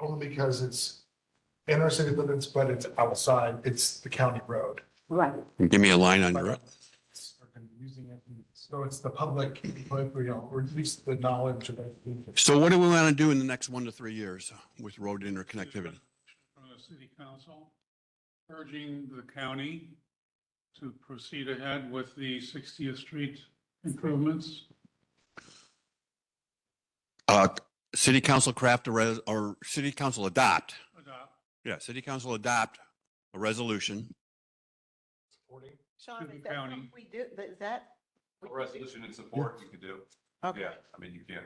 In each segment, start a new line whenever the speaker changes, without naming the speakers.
only because it's in our city limits, but it's outside, it's the county road.
Right.
Give me a line on your,
Using it, so it's the public, but, you know, or at least the knowledge of it.
so what do we want to do in the next one to three years uh, with road interconnectivity?
From the city council urging the county to proceed ahead with the 60th Street improvements.
Uh, city council craft a res, or city council adopt,
Adopt.
yeah, city council adopt a resolution.
Sean,
Susan
is that something
County.
we do, is that? we can
A
do?
resolution in support you could do.
Okay.
Yeah, I mean, you can't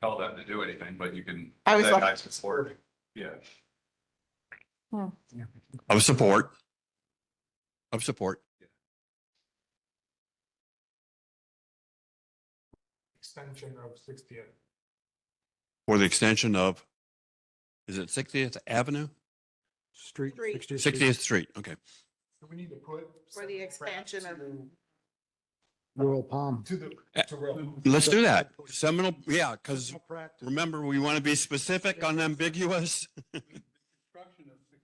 tell them to do anything, but you can.
I was
that
like-
guy's support. Yeah.
Of support. Of support.
Extension of sixtieth.
For the extension of, is it 60th Avenue?
Street.
Street.
60th Street, okay.
Do we need to put?
For the expansion of-
Rural Palm.
To the, to road.
Let's do that. Seminal, yeah, because
Practice.
remember, we want to be specific, unambiguous.
Construction of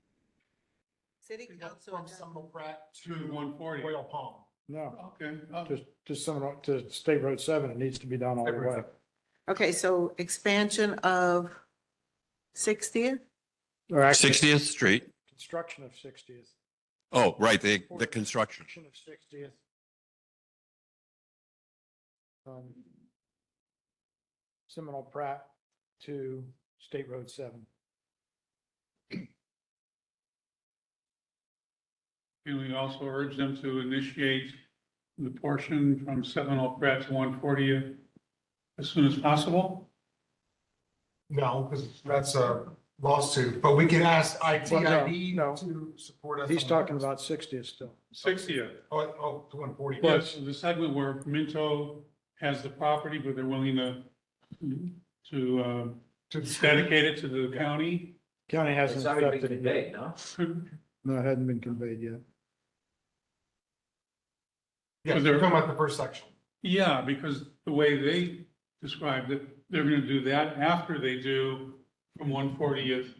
City council.
From
adopt-
Seminole Pratt to
To 140.
Royal Palm.
No,
Okay, uh,
just, just some, to State Road seven, it needs to be done all the way.
Okay, so expansion of sixtieth?
Or actually,
60th Street,
Construction of sixtieth.
oh, right, the, the construction.
Construction of sixtieth. Um, Seminole Pratt to State Road seven.
can we also urge them to initiate the portion from Seminole Pratt to 140th as soon as possible?
No, because that's a lawsuit, but we can ask ITID
Well, no, no.
to support us.
He's
on-
talking about sixtieth still.
60th.
Oh, oh, to one forty.
Yes, the segment where Minto has the property, but they're willing to, to uh,
To
dedicate it to the county.
County hasn't
It's already
accepted
been
it yet.
conveyed, no?
No, it hadn't been conveyed yet.
Yeah,
Was
we're
there-
talking about the first section.
Yeah, because the way they described it, they're gonna do that after they do from one fortieth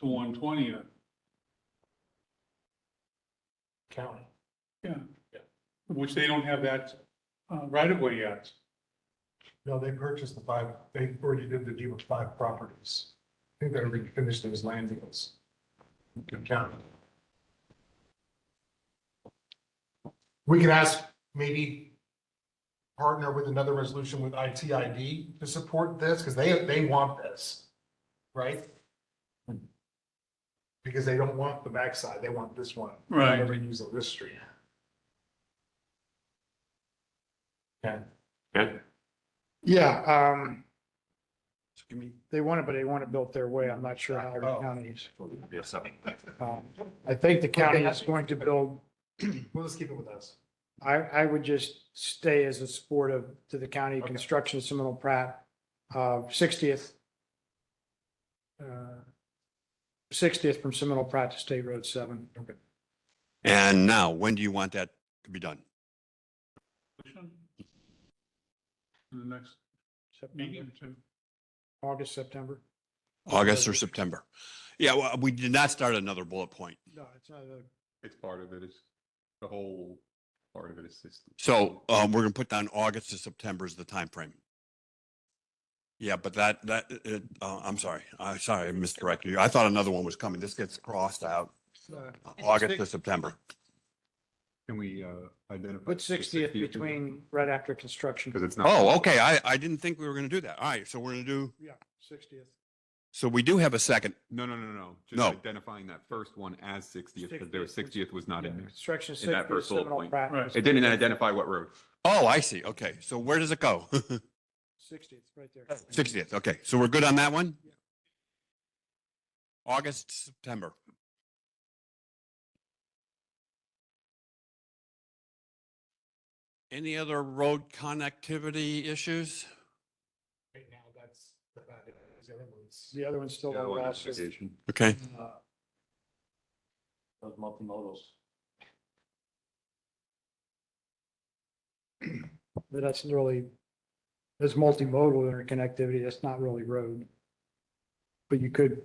to one twentieth.
County.
Yeah. Which they don't have that, uh, right of way yet.
No, they purchased the five, they already did the deal with five properties. I think they already finished those land deals. Good county. We can ask, maybe partner with another resolution with ITID to support this, because they, they want this, right? Because they don't want the backside, they want this one.
Right.
Never use of this street. Okay.
Yeah, um,
Give me-
they want it, but they want it built their way. I'm not sure how the
Oh.
counties.
Yes, I mean,
Um, I think the county is going to build,
Well, let's keep it with us.
I, I would just stay as a support of, to the county
Okay.
construction of Seminole Pratt, uh, sixtieth. uh, Sixtieth from Seminole Pratt to State Road seven. Okay.
And now, when do you want that to be done?
In the next meeting
September,
or two.
August, September.
August or September? Yeah, well, we did not start another bullet point.
No, it's not a.
it's part of it is, the whole part of it is system.
So um, we're gonna put down August to September is the time frame. Yeah, but that, that, it, uh, I'm sorry, I'm sorry, I misdirected you. I thought another one was coming. This gets crossed out, August to September.
Can we uh, identify?
Put sixtieth between, right after construction.
Because it's not.
Oh, okay, I, I didn't think we were gonna do that. All right, so we're gonna do,
Yeah, sixtieth.
so we do have a second.
No, no, no, no. Just
No.
identifying that first one as sixtieth, because there was
60th.
sixtieth was not in there.
Construction
In that
sixtieth,
first bullet
Seminole
point.
Pratt.
Right.
It didn't identify what road.
Oh, I see, okay, so where does it go?
Sixtieth, right there.
Sixtieth, okay, so we're good on that one? August, to September. Any other road connectivity issues?
Right now, that's about it. These other ones.
The other one's still.
The other one
under
is
lawsuit.
vacation.
Okay,
Uh,
Those multimodals.
But that's really, that's multimodal interconnectivity, that's not really road. But you could